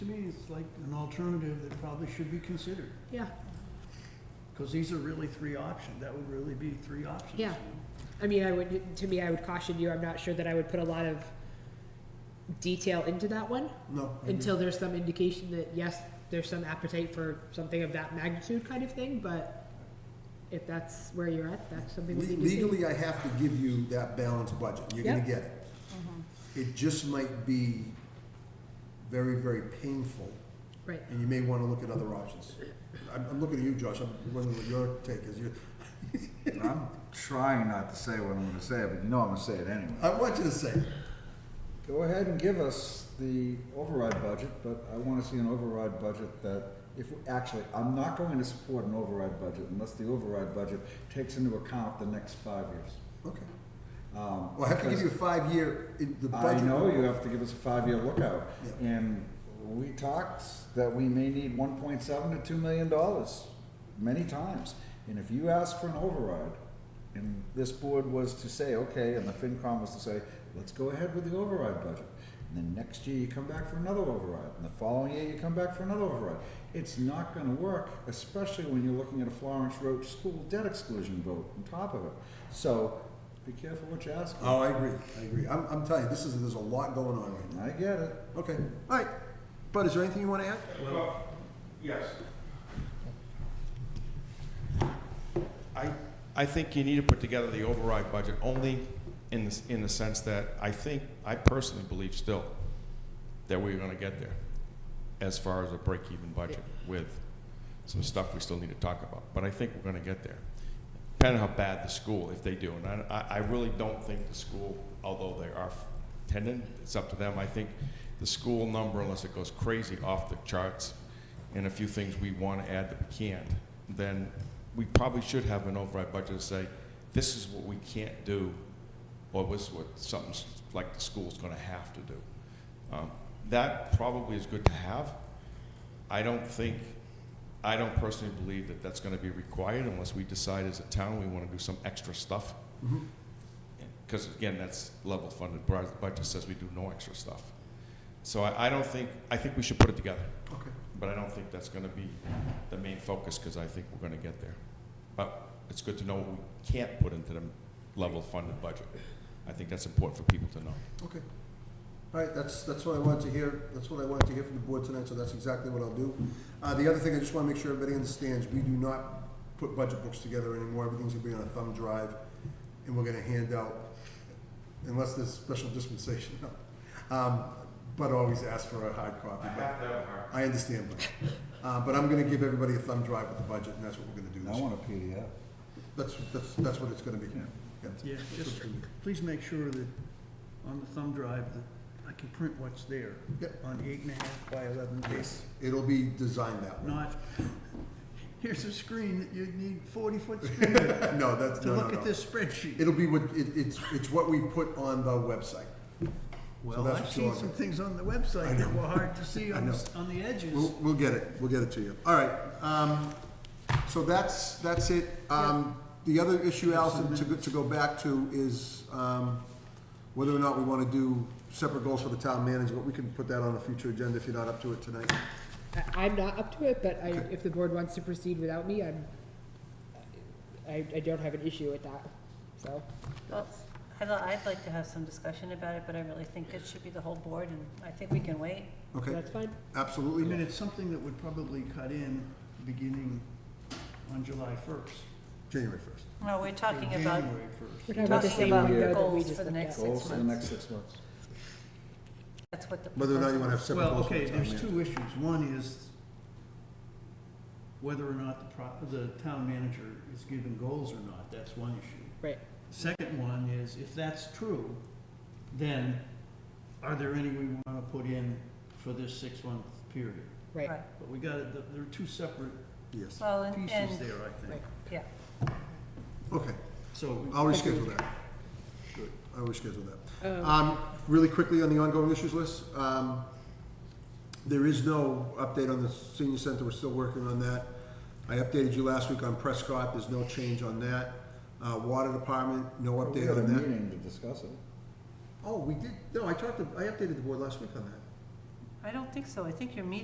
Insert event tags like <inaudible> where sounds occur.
me it's like an alternative that probably should be considered. Yeah, Because these are really three options, that would really be three options. Yeah. I mean, I would, to me, I would caution you, I'm not sure that I would put a lot of detail into that one No. Mm-hmm. until there's some indication that, yes, there's some appetite for something of that magnitude kind of thing, but if that's where you're at, that's something we need to see. Legally, I have to give you that balanced budget, you're gonna Yep. Mm-hmm. get it. It just might be very, very painful, Right, and you may wanna look at other options. I'm, I'm looking at you, Josh, I'm wondering what your take is, you, I'm trying not to say what I'm gonna say, but you know I'm gonna say it anyway. I want you to say, it. Go ahead and give us the override budget, but I wanna see an override budget that, if, actually, I'm not going to support an override budget unless the override budget takes into account the next five years. okay. Um, Well, I have to give because- you a five-year, in the I budget. know you have to give us a five-year lookout, Yeah. and we talked that we may need one point seven to two million dollars many times. And if you ask for an override, and this board was to say, okay, and the FinCom was to say, let's go ahead with the override budget. And then next year you come back for another override, and the following year you come back for another override. It's not gonna work, especially when you're looking at a Florence Roach school debt exclusion vote on top of it. So, be careful what you ask for. Oh, I agree, I agree, I'm, I'm telling you, this is, there's a lot going on right I get it. now, okay, all right. Bud, is there anything you wanna add? Well, yes. I, I think you need to put together the override budget only in the, s- in the sense that I think, I personally believe still that we're gonna get there as far as a break-even budget with some stuff we still need to talk about, but I think we're gonna get there. Depending on how bad the school, if they do, and I, I I really don't think the school, although they are tending, it's up to them, I think the school number, unless it goes crazy off the charts, and a few things we want to add that we can't, then we probably should have an override budget to say, this is what we can't do, or this is what something like the school's going to have to do. Um, That probably is good to have. I don't think, I don't personally believe that that's going to be required unless we decide as a town we want to do some extra stuff. Mhm. Because again, that's level funded, whereas the budget says we do no extra stuff. So I, I don't think, I think we should put it together. Okay. But I don't think that's gonna be the main focus, because I think we're gonna get there. But it's good to know what we can't put into the level funded budget. I think that's important for people to know. Okay. All right, that's, that's what I wanted to hear, that's what I wanted to hear from the board tonight, so that's exactly what I'll do. Uh, the other thing, I just wanna make sure everybody understands, we do not put budget books together anymore, everything's gonna be on a thumb drive, and we're gonna hand out, unless there's special dispensation, <laughs> um, but always ask for a hard copy. but- I understand, but, uh, but I'm gonna give everybody a thumb drive with the budget, and that's what we're gonna do I this year. want a PDF. That's, that's, that's what it's gonna be. Yeah. Yeah. Yeah, just please make sure that on the thumb drive that I can print what's there. Yep. On eight and a half by eleven paper, Yes, it'll be designed that way. not, here's a screen, that you need <laughs> forty-foot screen to No, that's, no, no, look no. at this spreadsheet. It'll be what, it, it's, it's what we put on the website. Well, that's I've what seen you're- some things on the website that were hard to see on, the s- on the edges. We'll, we'll get it, we'll get it to you. All right, um, so that's, that's it. Um, the other issue, Allison, to, go- to go back to is, um, whether or not we wanna do separate goals for the town manager, but we can put that on a future agenda if you're not up to it tonight. I, I'm not up to it, but I, Okay. if the board wants to proceed without me, I'm, I, I don't have an issue with that, so. Well, I'd, li- I'd like to have some discussion about it, but I really think it should be the whole board, and I think we can wait. Okay, That's fine. I mean, absolutely. it's something that would probably cut in beginning on July first. January first. No, we're talking about, January We're first. talking about the Talking same about window that we goals just for the looked next at. Goals for the months. next six months. that's what the. Whether or not you wanna have proposal separate Well, goals for the okay, town there's manager. two issues. One is whether or not the pro, the town manager is given goals or not, that's one issue. Right, Second one is, if that's true, then are there any we wanna put in for this six-month period? is. right, Right. But we gotta, th- there are two separate Yes, Well, and, pieces and, there, I think. right. yeah, okay. So, I'll reschedule that. Good. I'll reschedule that. Um, Um, really quickly on the ongoing issues list, um, there is no update on the senior center, we're still working on that. I updated you last week on Prescott, there's no change on that. Uh, water department, no We update had a on that. meeting to discuss it. Oh, we did, no, I talked to, I updated the board last week on that. I don't think so, I think your meeting